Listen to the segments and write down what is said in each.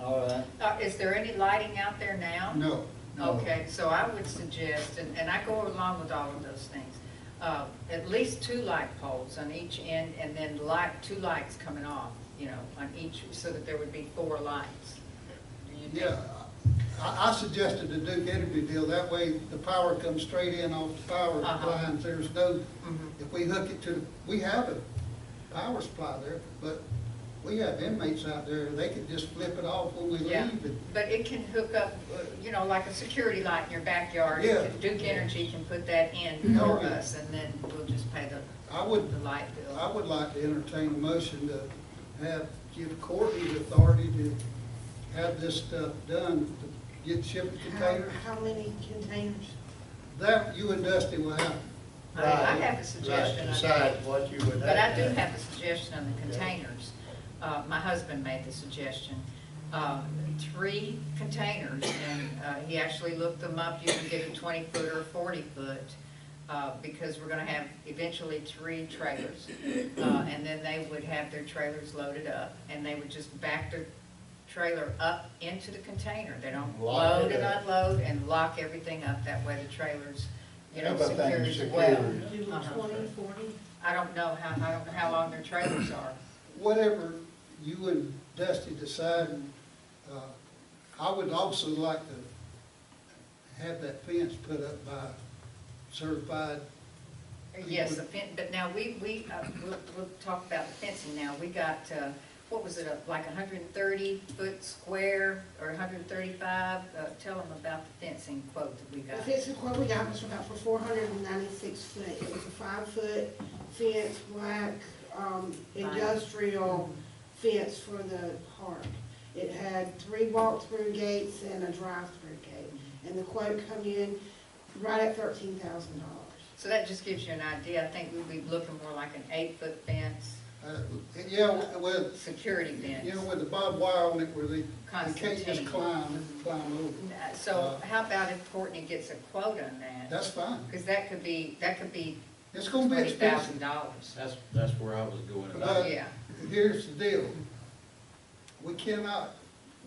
talk, Uh, is there any lighting out there now? No. no. Okay, so I would suggest, and, and I go along with all of those things, uh, at least two light poles on each end, and then light, two lights coming off, you know, on each, so that there would be four lights. Do you think- Yeah, I, I suggested the Duke Energy deal, that way the power comes straight in off the power Uh-huh. lines, there's no, Mhm. if we hook it to, the we have a power supply there, but we have inmates out there, they could just flip it off when we leave, Yeah, and but it can hook up, uh, you know, like a security light in your backyard. It Yeah. can- Duke Energy can put that in Mhm. for Okay. us, and then we'll just pay the, I would- the light bill. I would like to entertain a motion to have, give Courtney the authority to have this stuff done, to get shipping How, containers. how many containers? That, you and Dusty will have, I I Right, have a right, suggestion. on that. Decide what you would. But I have do to- have a suggestion on the containers. Uh, my husband made the suggestion. Uh, three containers, and, uh, he actually looked them up. You can get a twenty foot or a forty foot, uh, because we're gonna have eventually three trailers. Uh, and then they would have their trailers loaded up, and they would just back their trailer up into the container. They don't Lock it load and up. unload and lock everything up. That way the trailers, you know, Everything secure as secure. well. Do Uh-huh. twenty, forty? I don't know how, I don't know how long their trailers are. whatever you and Dusty decide. and, uh, I would also like to have that fence put up by certified. Yes, the fence, but now we, we, uh, we'll, we'll talk about the fencing now. We got, uh, what was it, uh, like hundred and thirty foot square or hundred and thirty-five? Uh, tell them about the fencing quote that we The got. fencing quote we got was about for four hundred and ninety-six foot. It was a five-foot fence, black, um, industrial fence for the park. It had three walk-through gates and a drive-through gate. And the quote come in right at thirteen thousand dollars. So that just gives you an idea. I think we'd be looking more like an eight-foot fence, Uh, Yeah, with, security you fence. know, with the barbed wire on it where they, they can't just Constantine. climb, climb over. Uh, So how about if Courtney gets a quote on that? That's fine. Because that could be, that could be It's gonna be twenty expensive. thousand dollars. That's, that's where I was going about. Uh, Yeah. Here's the deal. We cannot,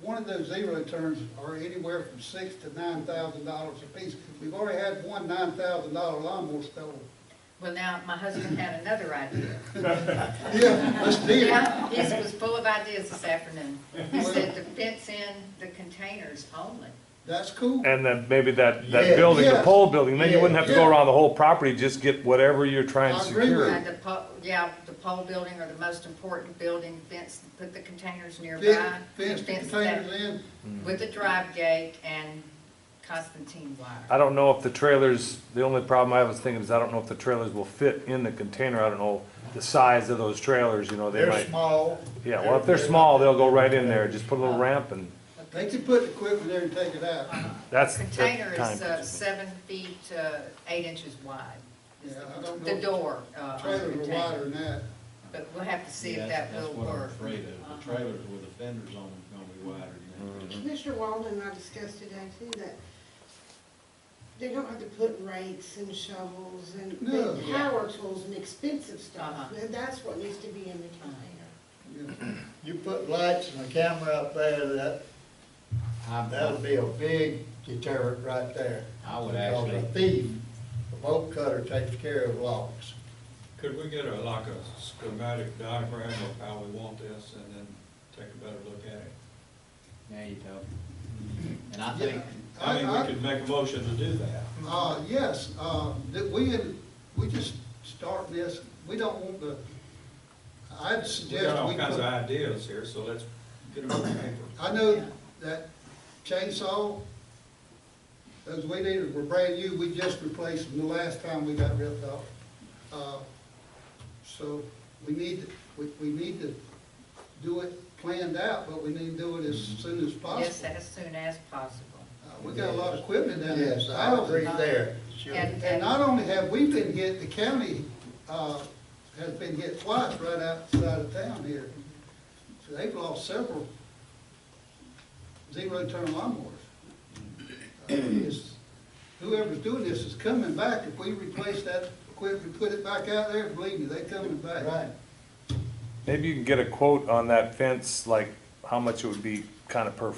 one of those zero turns are anywhere from six to nine thousand dollars apiece. We've already had one nine thousand dollar lawnmower stolen. Well, now, my husband had another idea. Yeah, let's do it. Yeah, he was full of ideas this afternoon. He said to fence in the containers only. That's cool. And then maybe that, Yeah. that building, the Yeah. pole building, then you wouldn't have to go Yeah. around the whole property, just get whatever you're trying to I agree with secure. And the po, yeah, the pole building or the most important building, fence, put the containers nearby. Fence, fence the and fence that containers in. With a drive gate and Constantine wire. I don't know if the trailers, the only problem I was thinking is I don't know if the trailers will fit in the container, I don't know the size of those trailers, you know, they They're might. small. Yeah, well, if they're small, they'll go right in there, just put a little ramp and They can put the equipment there and take it out. that's the Container time. is uh, seven feat, uh, eight inches wide. is Yeah, the- I don't The know. door, uh, on the Trailers are wider container. than that. But we'll have to see Yeah, if that's- that will That's what I'm work. afraid of, the Uh-huh. trailers with the fenders on them gonna be wider than Mm-hmm. that. Commissioner Walden and I discussed today too, that they don't have to put rakes and shovels and No. big power tools and expensive stuff. Uh-huh. And That's what needs to be in the container. Yeah. You put lights and a camera up there, that, I'm- that'll be a big deterrent right there. I would Because actually- A thief, a bolt cutter takes care of locks. Could we get a, like a schematic diagram of how we want this and then take a better look at it? There you go. Mm-hmm. And I think, I mean, I- I- we could make a motion to do that. Uh, yes, uh, that we, we just start this, we don't want the, I'd We got suggest all we kinds of put, ideas here, so let's get them on paper. I know that chainsaw, those weed eaters were brand new, we just replaced them the last time we got ripped off. Uh, So we need, we, we need to do it planned out, but we need to do it as soon Yes, as possible. as soon as possible. Uh, We got a lot of equipment down there. Yes, I agree there. Sure. And- And not only have we been hit, the county, uh, has been hit twice right outside of town here. So they've lost several zero-turn lawnmowers. Uh, it's- Whoever's doing this is coming back. If we replace that equipment, put it back out there, believe me, they coming back. Right. Maybe you can get a quote on that fence, like how much it would be kind of per